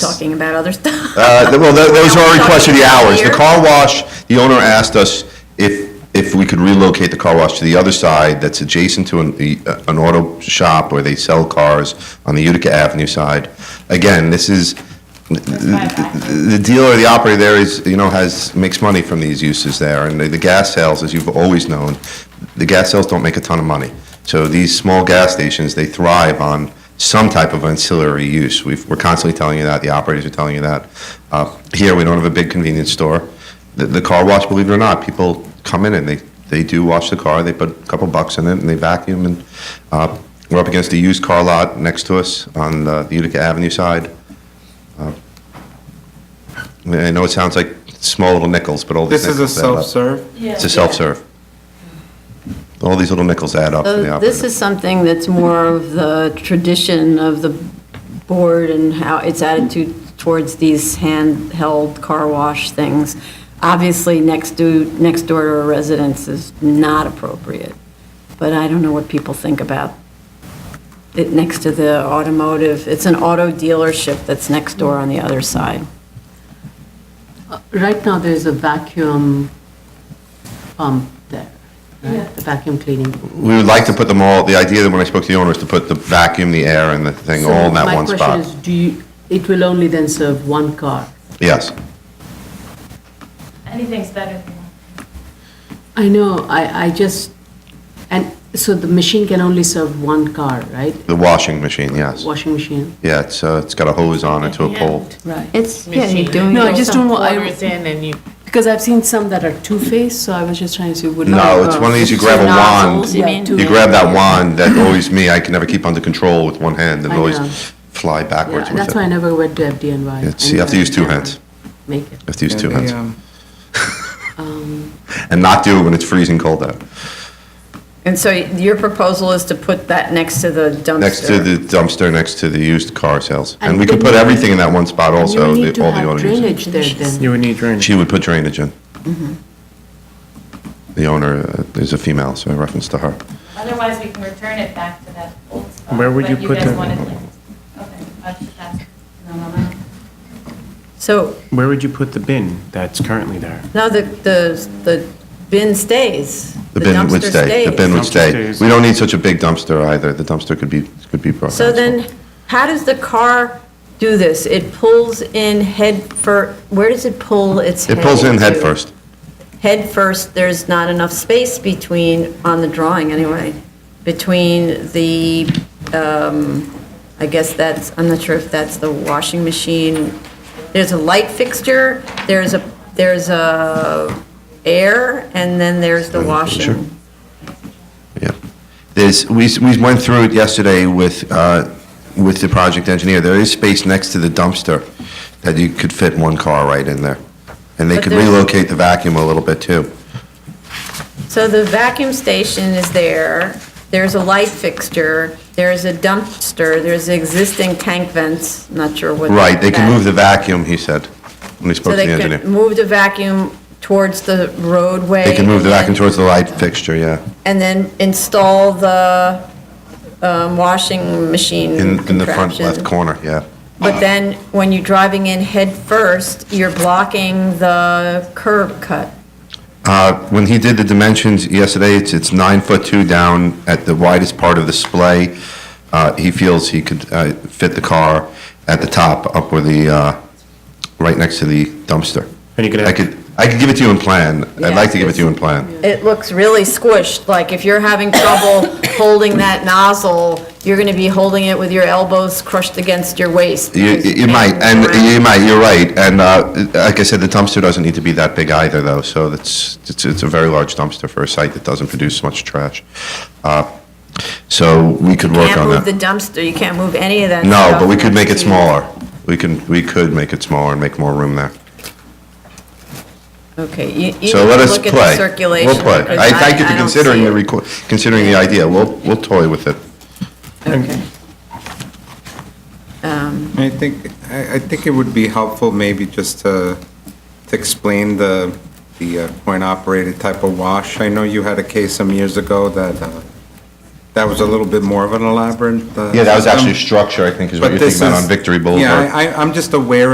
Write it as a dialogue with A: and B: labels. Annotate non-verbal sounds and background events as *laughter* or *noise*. A: asking about other stuff.
B: Uh, th- Well, th- those are our requests for the hours. The
A: Here.
B: car wash, the owner asked us if, if we could relocate the car wash to the other side that's adjacent to an, the, uh, an auto shop where they sell cars on the Utica Avenue side. Again, this is, the dealer, the operator there is, you know, has, makes money from these uses there, and the- the gas sales, as you've always known, the gas sales don't make a ton of money. So these small gas stations, they thrive on some type of ancillary use. We've, we're constantly telling you that, the operators are telling you that. Uh, Here, we don't have a big convenience store. The, the car wash, believe it or not, people come in and they, they do wash the car, they put a couple bucks in it, and they vacuum, and uh, we're up against a used car lot next to us on uh, the Utica Avenue side. I mean, I know it sounds like small little nickels, but all these
C: This is a
B: nickels add up.
C: self-serve?
B: It's a self-serve. All these little nickels add
D: Oh,
B: up. for
E: *laughs*
B: the
E: So This
B: operator.
E: is something that's more of the tradition of the board and how its attitude towards these handheld car wash things. Obviously, next to, next door to a residence is not appropriate, but I don't know what people think about it next to the automotive. It's an auto dealership that's next door on the other side.
D: Right now, there is a vacuum pump there, right? The vacuum cleaning.
B: We would like to put them all, the idea that when I spoke to the owner is to put the vacuum, the air, and the thing all in that one
D: So my question is,
B: spot.
D: do you, it will only then serve one car?
B: Yes.
F: Anything's better than that.
D: I know, I, I just, and so the machine can only serve one car, right?
B: The washing machine, yes.
D: Washing machine?
B: Yeah, it's, uh, it's got a hose on it to a pole.
D: Right.
E: It's, yeah,
G: machine.
E: you're doing.
D: No, I just don't want,
G: Orders
D: I,
G: in and you
D: because I've seen some that are two-faced, so I was just trying to see, would.
B: No, it's one of these, you grab a
E: Nozzles,
B: wand,
E: you mean?
B: you grab that wand, that always me, I can never keep under control with one hand, and
D: I
B: always
D: know.
B: fly backwards
D: Yeah,
B: with
D: That's
B: it.
D: why I
B: You
D: never went to FDNY.
B: It's- you have to use two hands.
D: uh, Make it.
B: have to use
C: Yeah,
B: two
C: they,
B: hands.
C: um,
B: And not do it when it's freezing cold out.
E: And so your proposal is to put that next to the dumpster?
B: Next to the dumpster, next to the used car sales. And
D: And
B: we could
D: then
B: put
D: you-
B: everything in that one spot
D: And
B: also,
D: You
B: the-
D: need to
B: all the
D: have
B: auto users.
D: drainage there then.
C: You would need drainage.
B: She would put drainage in. The owner uh, is a female, so a reference to her.
F: Otherwise, we can return it back to that old spot.
C: Where would
F: but
C: you put
F: guys
C: the-
F: wanted, like- Okay, that's, that's, no, no, no.
E: So,
C: Where would you put the bin that's currently there?
E: no, the, the, the bin stays.
B: The bin would
E: dumpster
B: stay, the
E: stays.
B: bin would
C: Dumpster
B: stay.
C: stays.
B: We don't need such a big dumpster either, the dumpster could be, could be brought.
E: So then, how does the car do this? It pulls in head fir, where does it pull its head?
B: It pulls in head
E: to?
B: first.
E: Head first, there's not enough space between, on the drawing anyway, between the, um, I guess that's, I'm not sure if that's the washing machine. There's a light fixture, there's a, there's a air, and then there's the
B: Light fixture.
E: washing.
B: Yeah. There's, we, s- we went through it yesterday with, uh, with the project engineer. There is space next to the dumpster that you could fit one car right in there. And they
E: But
B: could
E: there's-
B: relocate the vacuum a little bit too.
E: So the vacuum station is there, there's a light fixture, there's a dumpster, there's existing tank vents, not sure what.
B: Right, they can
E: that-
B: move the vacuum, he said, when he
E: So
B: spoke to the
E: they
B: engineer.
E: could move the vacuum towards the roadway.
B: They can move the
E: and
B: vacuum
E: then-
B: towards the light fixture, yeah.
E: And then install the um, washing machine
B: In, in the front
E: contraption.
B: left corner, yeah.
E: But then, when you're driving in head first, you're blocking the curb cut.
B: Uh, When he did the dimensions yesterday, it's, it's nine foot two down at the widest part of the splay. Uh, He feels he could uh, fit the car at the top, up where the, uh, right next to the dumpster.
C: And you could
B: I
C: have-
B: could, I could give it to you in plan. I'd like to give it to you in plan.
E: It looks really squished, like if you're having trouble
B: *coughs*
E: holding that nozzle, you're going to be holding it with your elbows crushed against your waist.
B: You,
E: because
B: you might,
E: it's
B: and
E: around.
B: you might, you're right. And uh, like I said, the dumpster doesn't need to be that big either, though, so that's, it's, it's a very large dumpster for a site that doesn't produce much trash. Uh, So we could work
E: Can't
B: on
E: move
B: that.
E: the dumpster, you can't move any of that
B: No,
E: stuff
B: but we could make it
E: next to you.
B: smaller. We can, we could make it smaller and make more room there.
E: Okay, you, you need
B: So
E: to
B: let us
E: look at
B: play.
E: the circulation.
B: We'll play.
E: because
B: I thank you
E: I
B: for
E: don't
B: considering
E: see
B: the,
E: it.
B: requ- considering the idea. We'll, we'll toy with it.
E: Okay.
C: I think, I, I think it would be helpful maybe just to, to explain the, the uh, coin-operated type of wash. I know you had a case some years ago that, uh, that was a little bit more of an elaborate. uh,
B: Yeah, that was actually
C: system.
B: structure, I think, Um, is what
C: But
B: you're thinking
C: this
B: about
C: is-
B: on Victory Boulevard.
C: Yeah, I, I- I'm just aware